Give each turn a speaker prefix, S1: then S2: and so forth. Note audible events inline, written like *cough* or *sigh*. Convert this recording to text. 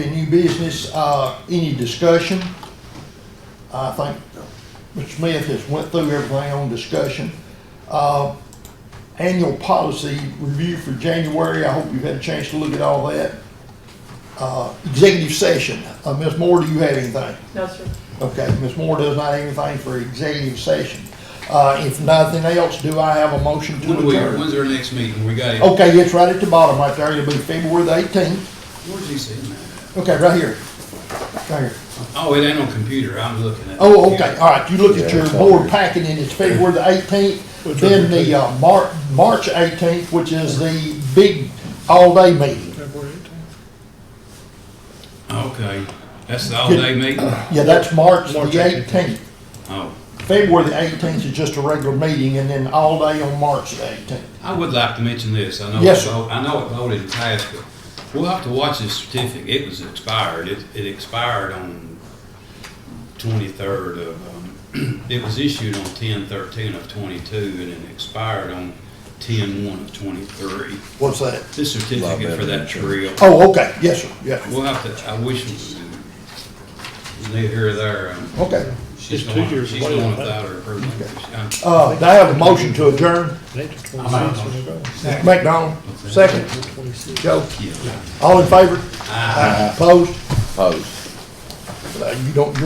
S1: business, uh, any discussion? I think Mr. Smith has went through everything on discussion. Uh, annual policy review for January, I hope you've had a chance to look at all that. Uh, executive session, uh, Ms. Moore, do you have anything?
S2: No, sir.
S1: Okay, Ms. Moore does not have anything for executive session. Uh, if nothing else, do Oh. I have a motion to
S3: When do we,
S1: adjourn?
S3: when's our next meeting? We got it.
S1: Okay, it's right at the bottom right there, it'll be February the eighteenth,
S3: Where's he sitting at?
S1: okay, right here. Right here.
S3: Oh, it ain't on computer. I'm looking at. it.
S1: Oh, okay, all right, you look at your
S4: Yeah, it's all
S1: board
S4: here.
S1: packet and it's February the eighteenth, then the, uh, Mar- March eighteenth, which is the big all-day meeting.
S3: Okay, that's the all day meeting?
S1: Yeah, that's March the
S5: March 18th.
S1: eighteenth.
S3: Oh,
S1: February the eighteenth is just a regular meeting and then all day on March the eighteenth.
S3: I would like to mention this. I know,
S1: Yes,
S3: it vo- I know it voted and passed, but we'll have to watch this certificate. It was expired. It, it expired on twenty-third of, um, *clears throat* it was issued on ten thirteen of twenty-two and it expired on ten one of twenty-three.
S1: What's that?
S3: This
S4: Lot
S3: certificate
S4: better
S3: for
S4: than
S3: that
S4: sure.
S3: trail.
S1: Oh, okay, yes, sir, yes,
S3: We'll have to, I wish, we- neither here or there. um,
S1: okay.
S3: She's
S5: It's two
S3: going,
S5: years
S3: she's
S5: away,
S3: going
S5: I think.
S3: without her approval. She-
S1: Uh, do I have a motion to adjourn? McDonald, second, Joe,
S3: I- yeah.
S1: all in favor?
S3: I-
S1: Opposed?
S4: Opposed.
S1: Uh, You don't,